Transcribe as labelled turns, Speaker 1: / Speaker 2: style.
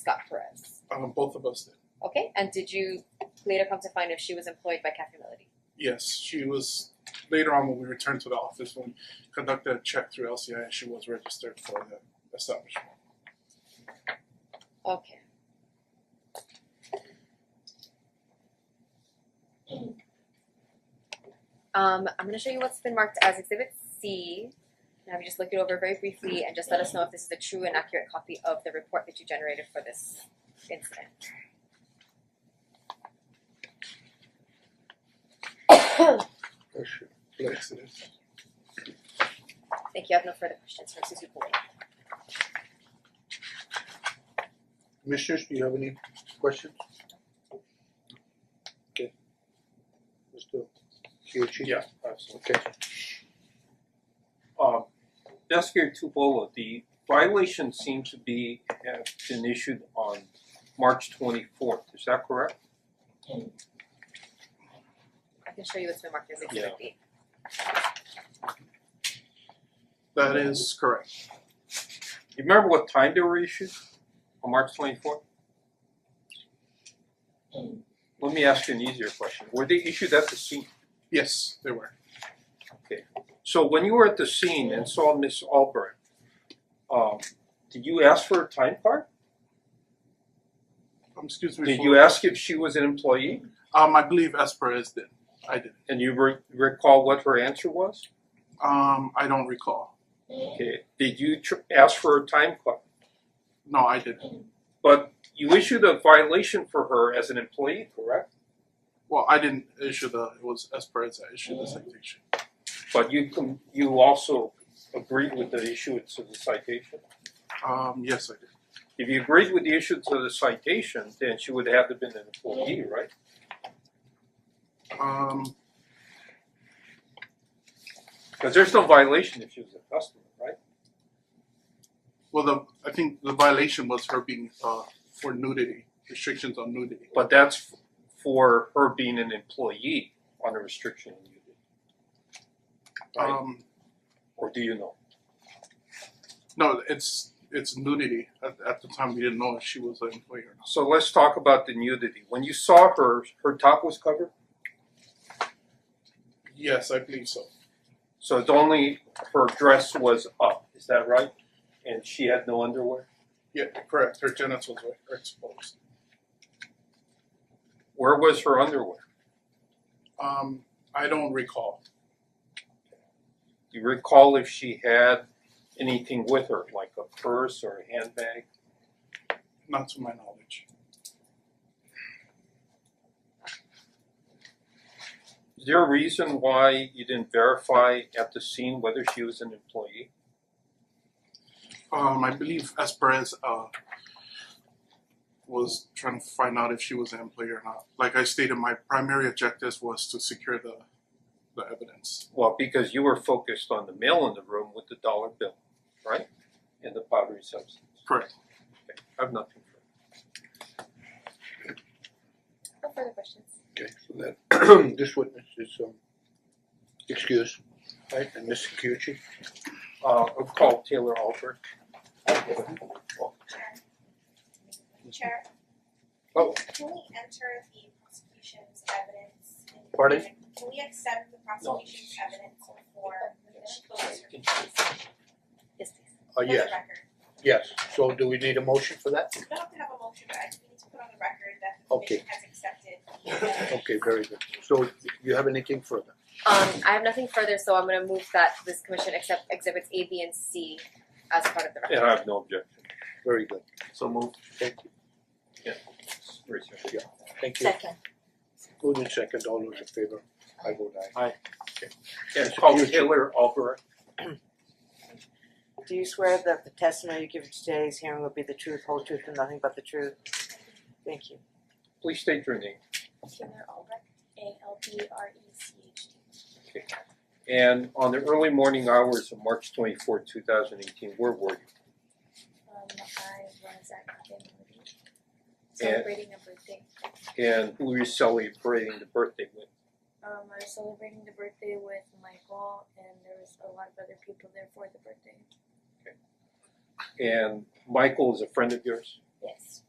Speaker 1: Scott Perez.
Speaker 2: Um, both of us did.
Speaker 1: Okay, and did you later come to find if she was employed by Cafe Melody?
Speaker 2: Yes, she was. Later on, when we returned to the office, when we conducted a check through LCI, she was registered for the establishment.
Speaker 1: Okay. Um, I'm gonna show you what's been marked as Exhibit C. Now, you just look it over very briefly and just let us know if this is a true and accurate copy of the report that you generated for this incident.
Speaker 2: Yes, it is.
Speaker 1: Thank you. I have no further questions for Susie Pulling.
Speaker 3: Commissioners, do you have any questions? Okay. Mr. Kyuchi?
Speaker 4: Yeah, absolutely.
Speaker 3: Okay,
Speaker 4: Um, Deskier Tubola, oh the violation seemed to be, have been issued on March twenty-fourth, is that correct?
Speaker 1: I can show you what's been marked as Exhibit B.
Speaker 2: That is correct.
Speaker 4: You remember what time they were issued on March twenty-fourth? Let me ask you an easier question, were they issued at the scene?
Speaker 2: Yes, they were.
Speaker 4: So when you were at the scene and saw Miss Albright, um, did you ask for a time card?
Speaker 2: Um, excuse me.
Speaker 4: Did
Speaker 2: for-
Speaker 4: you ask if she was an employee?
Speaker 2: Um, I believe Esperez did. I did.
Speaker 4: And you re- recall what her answer was?
Speaker 2: Um, I don't recall.
Speaker 4: Okay, did you tr- ask for a time card?
Speaker 2: No, I didn't.
Speaker 4: But you issued a violation for her as an employee, correct?
Speaker 2: Well, I didn't issue the. It was Esperez that issued the citation.
Speaker 4: But you com- you also agreed with the issuance of the citation.
Speaker 2: Um, yes, I did.
Speaker 4: If you agreed with the issuance of the citation, then she would have to been an employee, right?
Speaker 2: Um,
Speaker 4: Because there's no violation if she was a customer, right?
Speaker 2: well, the I think the violation was her being uh for nudity restrictions on nudity.
Speaker 4: But that's f- for her being an employee on a restriction on you, right?
Speaker 2: Um,
Speaker 4: or do you know?
Speaker 2: No, it's it's nudity. At, at the time, we didn't know if she was an employee or not.
Speaker 4: So let's talk about the nudity. When you saw her, her top was covered.
Speaker 2: Yes, I believe so.
Speaker 4: So it's only her dress was up, is that right? And she had no underwear?
Speaker 2: Yeah, correct. Her genitals were exposed.
Speaker 4: Where was her underwear?
Speaker 2: Um, I don't recall.
Speaker 4: Do you recall if she had anything with her, like a purse or a handbag?
Speaker 2: Not to my knowledge.
Speaker 4: Is there a reason why you didn't verify at the scene whether she was an employee?
Speaker 2: Um, I believe Esperez uh was trying to find out if she was an employee or not. Like I stated, my primary objective was to secure the the evidence.
Speaker 4: Well, because you were focused on the male in the room with the dollar bill, right? And the powdery substance.
Speaker 2: Correct.
Speaker 4: Okay, I have nothing further.
Speaker 1: No further questions.
Speaker 3: okay, so that, this witness is, um, excused. Right, and Mr. Kyuchi?
Speaker 4: Uh, I'll call Taylor Albert.
Speaker 5: Chair,
Speaker 3: Oh,
Speaker 5: can we enter the prosecution's evidence? in-
Speaker 3: Pardon?
Speaker 5: Can we accept the prosecution's evidence for closure?
Speaker 1: Yes, please.
Speaker 3: uh,
Speaker 5: For the
Speaker 3: yes,
Speaker 5: record.
Speaker 3: yes, so do we need a motion for that?
Speaker 5: We don't have to have a motion, but I just need to put on the record that the
Speaker 3: Okay.
Speaker 5: commission has accepted the evidence.
Speaker 3: Okay, very good, so you have anything further?
Speaker 1: Um, I have nothing further, so I'm gonna move that this commission accept exhibits A, B, and C as part of the record.
Speaker 4: And I have no objection.
Speaker 3: Very good,
Speaker 4: So move.
Speaker 3: thank you,
Speaker 4: Raise your hand.
Speaker 3: thank you.
Speaker 1: Second.
Speaker 3: Moving second, all those in favor? I vote aye.
Speaker 4: Yeah, call Taylor Albert.
Speaker 6: Do you swear that the testimony you give today's hearing will be the truth, whole truth, and nothing but the truth? Thank you.
Speaker 4: Please state your name.
Speaker 7: Taylor Albrecht, A L B R E C H T.
Speaker 4: And on the early morning hours of March twenty fourth, two thousand eighteen, where were you?
Speaker 7: Um, I was at Cafe Melody celebrating a birthday.
Speaker 4: And who were you celebrating the birthday with?
Speaker 7: Um, I was celebrating the birthday with Michael, and there was a lot of other people there for the birthday.
Speaker 4: And Michael is a friend of yours?
Speaker 7: Yes.